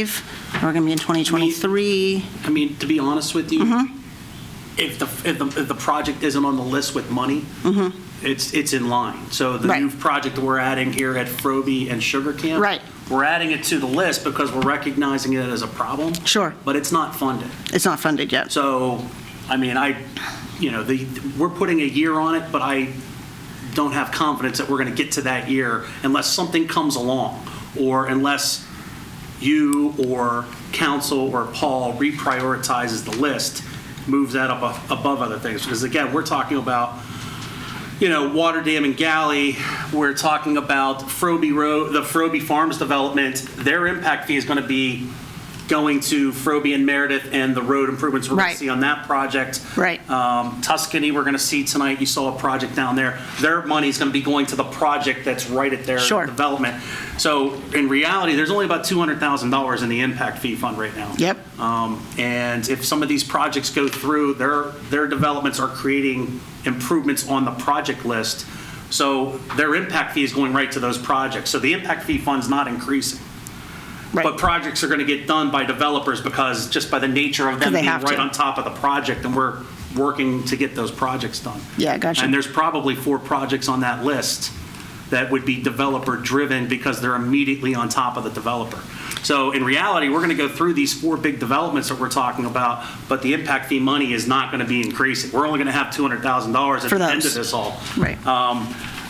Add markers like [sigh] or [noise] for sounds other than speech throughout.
We're going to be in 2023. I mean, to be honest with you, Mm-hmm. if the, if the, if the project isn't on the list with money, it's, it's in line. So the new Mm-hmm. Right. project we're adding here at Frobe and Sugar Camp. Right. We're adding it to the list because we're recognizing it as a problem. Sure. But it's not funded. It's not funded yet. So, I mean, I, you know, the, we're putting a year on it, but I don't have confidence that we're going to get to that year unless something comes along, or unless you or council or Paul reprioritizes the list, moves that up a- above other things. Because again, we're talking about, you know, Water Dam and Galley, we're talking about Frobe Road, the Frobe Farms development, their impact fee is going to be going to Frobe and Meredith and the road improvements we're going Right. to see on that project. Right. Um, Tuscany, we're going to see tonight, you saw a project down there. Their money's going to be going to the project that's right at their Sure. development. So in reality, there's only about $200,000 in the impact fee fund right now. Yep. Um, And if some of these projects go through, their, their developments are creating improvements on the project list. So their impact fee is going right to those projects. So the impact fee fund's not increasing. But Right. projects are going to get done by developers because, just by the nature of them They being have right to. on top of the project, and we're working to get those projects done. Yeah, gotcha. And there's probably four projects on that list that would be developer-driven because they're immediately on top of the developer. So in reality, we're going to go through these four big developments that we're talking about, but the impact fee money is not going to be increasing. We're only going to have $200,000 at For the end those. of this all. Right. Um,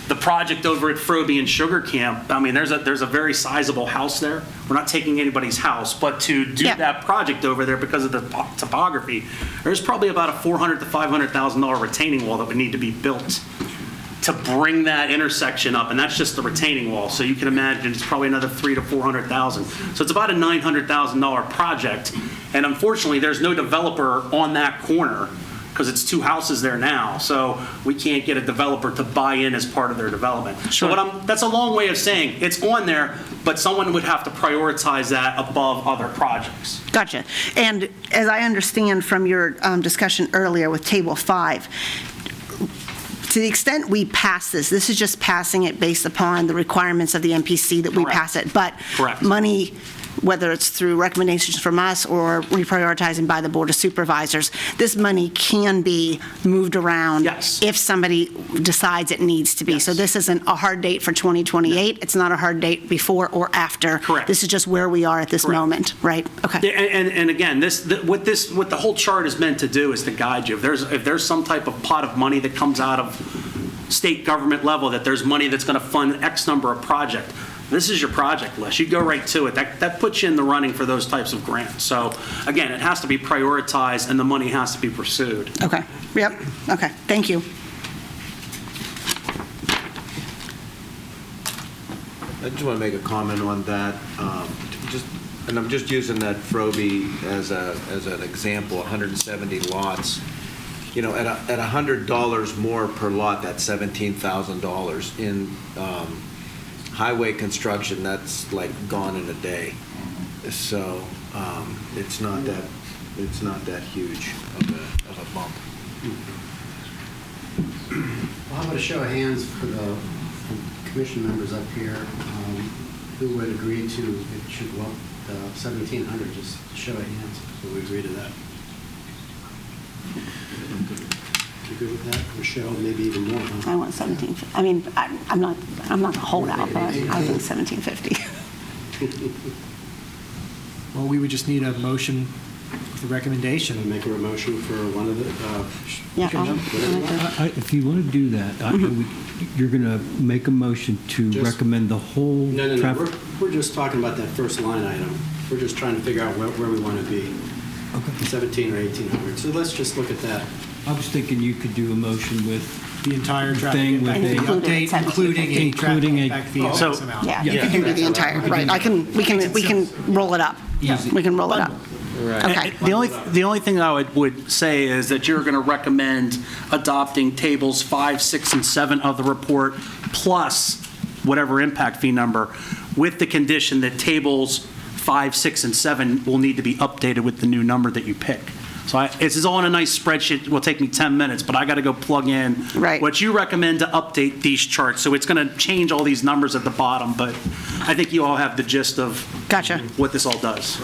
The project over at Frobe and Sugar Camp, I mean, there's a, there's a very sizable house there. We're not taking anybody's house, but to do Yeah. that project over there because of the po- topography, there's probably about a 400 to 500,000 dollar retaining wall that would need to be built to bring that intersection up, and that's just the retaining wall. So you can imagine it's probably another three to 400,000. So it's about a 900,000 dollar project, and unfortunately, there's no developer on that corner because it's two houses there now. So we can't get a developer to buy in as part of their development. So Sure. what I'm, that's a long way of saying it's on there, but someone would have to prioritize that above other projects. Gotcha. And as I understand from your um, discussion earlier with Table 5, to the extent we pass this, this is just passing it based upon the requirements of the MPC that we Correct. pass it. But Correct. money, whether it's through recommendations from us or reprioritizing by the Board of Supervisors, this money can be moved around. Yes. If somebody decides it needs to be. So Yes. this isn't a hard date for 2028. It's not a hard date before or after. Correct. This is just where we are at this Correct. moment, right? Okay. Yeah, And, and- and again, this, th- what this, what the whole chart is meant to do is to guide you. If there's, if there's some type of pot of money that comes out of state government level, that there's money that's going to fund X number of project, this is your project list. You go right to it. That, that puts you in the running for those types of grants. So again, it has to be prioritized and the money has to be pursued. Okay, yep, okay, thank you. I just want to make a comment on that. um, Just, and I'm just using that Frobe as a, as an example, 170 lots. You know, at a, at $100 more per lot, that's $17,000. In um, highway construction, that's like gone in a day. So um, it's not that, it's not that huge of a, of a bump. Well, how about a show of hands for the for commission members up here? um, Who would agree to, it should go up to 1,700, just a show of hands, would we agree to that? Do you agree with that, Michelle, maybe even more, I huh? [laughs] want 17, I mean, I- I'm not, I'm not gonna hold out, but I think 1750. Well, we would just need a motion with a Should I recommendation. make a motion for one of the, uh, sh- [laughs] Yeah, I'll- whatever you want? I- I- If you want to do that, I- we- you're going to make a motion to Mm-hmm. Just- recommend the whole No, no, no, traffic. we're, we're just talking about that first line item. We're just trying to figure out where, where we want to be, 17 or 1,800. So let's just look at that. I was thinking you could do a motion with, The entire traffic Thing with impact fee the- update, including a traffic Including a- impact fee of So- X amount. Yeah, you can do the entire, right, I can, we can, we can roll it up. Easy. We can roll it up. Okay, And The only, the only thing I would, would say is that you're going to recommend adopting tables five, six, and seven of the report, plus whatever impact fee number, with the condition that tables five, six, and seven will need to be updated with the new number that you pick. So I, this is all in a nice spreadsheet, it will take me 10 minutes, but I got to go plug in. Right. What you recommend to update these charts, so it's going to change all these numbers at the bottom, but I think you all have the gist of. Gotcha. What this all does.